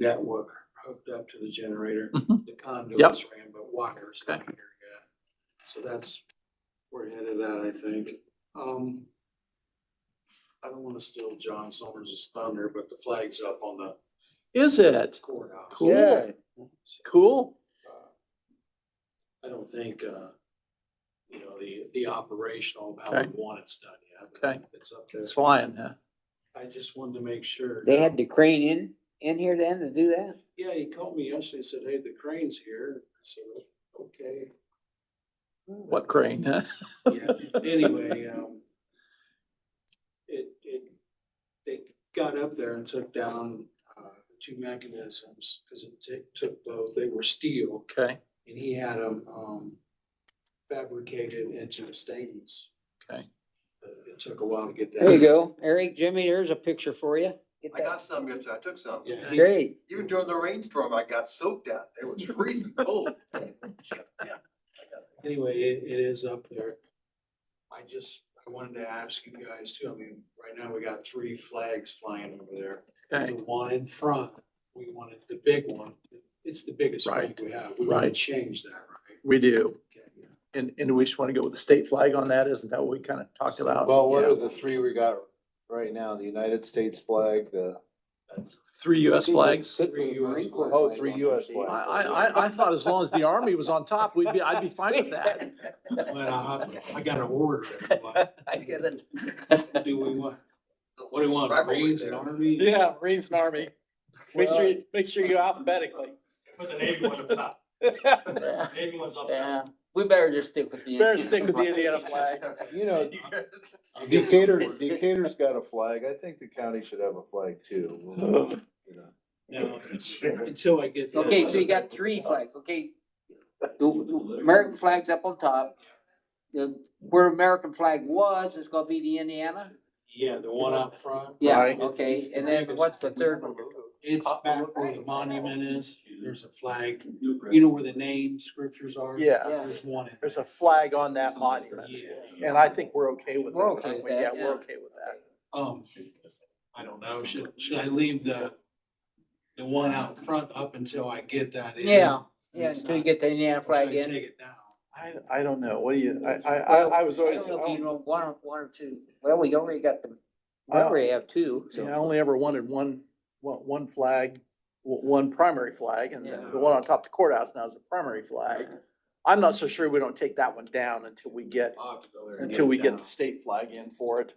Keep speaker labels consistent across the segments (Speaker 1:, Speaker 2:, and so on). Speaker 1: that work hooked up to the generator.
Speaker 2: Mhm.
Speaker 1: The conduits ran, but wires not here yet. So that's, where we're headed at, I think. Um, I don't wanna steal John Summers' thunder, but the flag's up on the
Speaker 2: Is it?
Speaker 1: courthouse.
Speaker 2: Cool. Cool.
Speaker 1: Uh, I don't think, uh, you know, the, the operational, how we
Speaker 2: Okay.
Speaker 1: want it's done yet. but
Speaker 2: Okay.
Speaker 1: It's up
Speaker 2: It's
Speaker 1: there.
Speaker 2: flying, huh?
Speaker 1: I just wanted to make sure.
Speaker 3: They had the crane in, in here then to do that?
Speaker 1: Yeah, he called me yesterday, and said, hey, the crane's here. I said, okay.
Speaker 2: What crane, huh?
Speaker 1: Yeah, anyway, um, it, it, they got up there and took down, uh, two mechanisms, cause it ta- took both, they were steel,
Speaker 2: Okay,
Speaker 1: and he had them, um, fabricated into statements.
Speaker 2: okay.
Speaker 1: It took a while to get that.
Speaker 3: There you go. Eric, Jimmy, there's a picture for you. Get
Speaker 4: I got
Speaker 3: that.
Speaker 4: some yesterday. I took some.
Speaker 1: Yeah. he-
Speaker 3: Great.
Speaker 4: Even during the rainstorm, I got soaked out. It was freezing cold.
Speaker 1: Anyway, it, it is up there. I just, I wanted to ask you guys too, I mean, right now we got three flags flying over there.
Speaker 2: Okay,
Speaker 1: The one in front, we wanted the big one. It's the biggest flag
Speaker 2: Right.
Speaker 1: we have. We want to
Speaker 2: Right.
Speaker 1: change that, right?
Speaker 2: we do.
Speaker 1: Okay, yeah.
Speaker 2: And, and we just want to go with the state flag on that. Isn't that what we kind of talked about?
Speaker 5: Well, what are
Speaker 2: Yeah.
Speaker 5: the three we got right now? The United States flag, the,
Speaker 1: That's-
Speaker 2: Three US flags.
Speaker 3: Put the
Speaker 1: Three US
Speaker 3: Marine Corps
Speaker 1: flag.
Speaker 5: Oh,
Speaker 3: flag
Speaker 5: three
Speaker 3: on there,
Speaker 5: US
Speaker 3: see?
Speaker 2: I,
Speaker 5: flag.
Speaker 2: I, I- I thought as long as the army was on top, we'd be, I'd be fine with that.
Speaker 1: But I, I got to order. it. Like,
Speaker 3: I get it.
Speaker 1: Do we want, what do we want, Marines and Army?
Speaker 6: Yeah, Marines and Army. Make sure, you- make sure you alphabetically.
Speaker 7: Put the Navy one up top, Navy one's up top.
Speaker 3: Yeah, we better just stick with the.
Speaker 6: Better stick with the Indiana flag.
Speaker 5: You know,
Speaker 1: I'll get some
Speaker 5: Decatur,
Speaker 1: order.
Speaker 5: Decatur's got a flag. I think the county should have a flag too. You know.
Speaker 1: No, Until I get. that
Speaker 3: Okay, so you
Speaker 1: other-
Speaker 3: got three flags, okay? The the American flag's up on top. The, where American flag was, is gonna be the Indiana?
Speaker 1: Yeah, the one up front.
Speaker 3: Yeah,
Speaker 1: Right.
Speaker 3: okay,
Speaker 1: It's-
Speaker 3: and then what's the third one?
Speaker 1: It's back where the monument is. There's a flag. You know where the name scriptures are?
Speaker 6: Yes,
Speaker 1: There's one. in
Speaker 6: there's
Speaker 1: there.
Speaker 6: a flag on that monument.
Speaker 1: Yeah.
Speaker 6: And I think we're okay with that.
Speaker 3: We're okay
Speaker 6: aren't we?
Speaker 3: with that,
Speaker 6: Yeah, we're
Speaker 3: yeah.
Speaker 6: okay with that.
Speaker 1: Um, I don't know, should, should I leave the, the one out front up until I get that in?
Speaker 3: Yeah, yeah, until you get the Indiana
Speaker 1: Or should I
Speaker 3: flag in.
Speaker 1: Take it down.
Speaker 6: I, I don't know. What do you, I, I,
Speaker 3: Well,
Speaker 6: I- I was
Speaker 3: I
Speaker 6: always,
Speaker 3: don't
Speaker 6: I
Speaker 3: know if
Speaker 6: don't-
Speaker 3: you know one, or- one or two. Well, we already got the, we
Speaker 6: Well,
Speaker 3: already have two,
Speaker 6: yeah, I
Speaker 3: so.
Speaker 6: only ever wanted one, one, one flag, o- one primary flag and the the one on top of the courthouse now is a primary flag. I'm not so sure we don't take that one down until we get,
Speaker 1: I'll have to go there and
Speaker 6: until
Speaker 1: it
Speaker 6: we get
Speaker 1: down.
Speaker 6: the state flag in for it.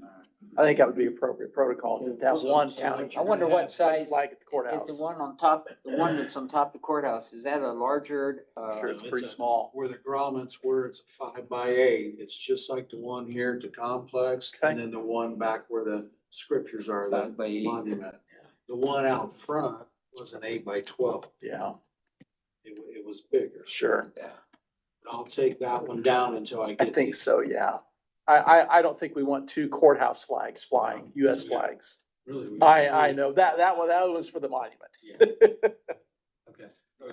Speaker 1: Alright.
Speaker 6: I think that would be appropriate protocol to have one county.
Speaker 3: I wonder what size
Speaker 6: Flag at the
Speaker 3: is
Speaker 6: courthouse.
Speaker 3: the one on top, the one that's on top of courthouse, is that a larger, uh?
Speaker 6: Sure, it's
Speaker 1: It's
Speaker 6: pretty
Speaker 1: a-
Speaker 6: small.
Speaker 1: Where the grommets were, it's a five by eight, it's just like the one here at the complex, and
Speaker 6: Okay.
Speaker 1: then the one back where the scriptures are,
Speaker 3: Five
Speaker 1: the
Speaker 3: by eight.
Speaker 1: monument. The one out front was an eight by twelve,
Speaker 6: Yeah,
Speaker 1: it, wa- it was bigger.
Speaker 6: sure.
Speaker 1: I'll take that one down until I
Speaker 6: I
Speaker 1: get.
Speaker 6: think so, yeah. I, I, I don't think we want two courthouse flags flying, US
Speaker 1: Yeah.
Speaker 6: flags.
Speaker 1: Really, we-
Speaker 6: I, I know that, that one, that was for the monument.
Speaker 1: Yeah. Okay, all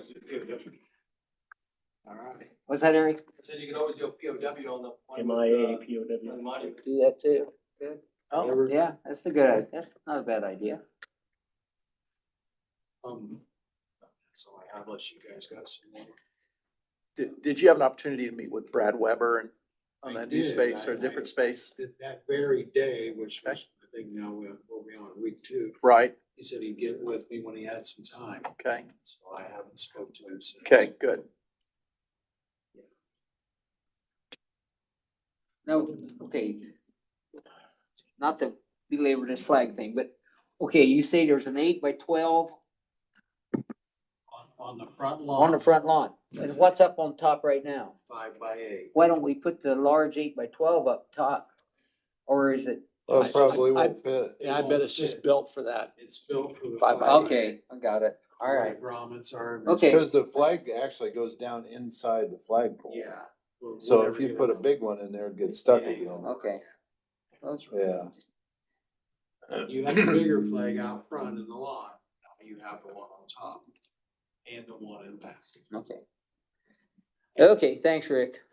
Speaker 1: right.
Speaker 3: What's that, Eric?
Speaker 4: Said you can always do a POW on the. on
Speaker 7: M
Speaker 4: the,
Speaker 7: I A P O
Speaker 4: uh, on the
Speaker 7: W.
Speaker 4: monument.
Speaker 3: Do that too.
Speaker 6: Oh,
Speaker 1: Whatever.
Speaker 3: Yeah, that's the good, idea. that's not a bad idea.
Speaker 1: Um, so I have, unless you guys got some more.
Speaker 6: did, did you have an opportunity to meet with Brad Weber and on
Speaker 1: I
Speaker 6: that new
Speaker 1: did.
Speaker 6: space or
Speaker 1: I-
Speaker 6: a different
Speaker 1: I-
Speaker 6: space?
Speaker 1: That, that very day, which was, I think now we're, we'll be on week two,
Speaker 6: Right,
Speaker 1: he said he'd get with me when he had some time.
Speaker 6: okay,
Speaker 1: So I haven't spoke to him since.
Speaker 6: okay, good.
Speaker 3: No, okay. Not to belabor this flag thing, but, okay, you say there's an eight by twelve
Speaker 1: On, on the front
Speaker 3: on the
Speaker 1: lawn,
Speaker 3: front lawn, and what's up on top right now?
Speaker 1: five by eight.
Speaker 3: Why don't we put the large eight by twelve up top? Or is it,
Speaker 5: That probably
Speaker 2: I-
Speaker 5: won't fit.
Speaker 2: Yeah, I bet it's just built for that.
Speaker 1: It's built for the.
Speaker 2: Five by
Speaker 1: flag,
Speaker 3: okay, I got it, all
Speaker 1: where
Speaker 3: right.
Speaker 1: the Grommets are. and
Speaker 3: Okay.
Speaker 5: Because the flag actually goes down inside the flagpole.
Speaker 1: Yeah. we'll-
Speaker 5: So
Speaker 1: we'll
Speaker 5: if
Speaker 1: never
Speaker 5: you
Speaker 1: get
Speaker 5: put a
Speaker 1: on.
Speaker 5: big one in there, it'd get stuck
Speaker 1: Yeah.
Speaker 5: again.
Speaker 3: Okay. Those-
Speaker 5: Yeah.
Speaker 1: You have a bigger flag out front in the lawn, now you have the one on top and the one in back.
Speaker 3: Okay. Okay, thanks, Rick.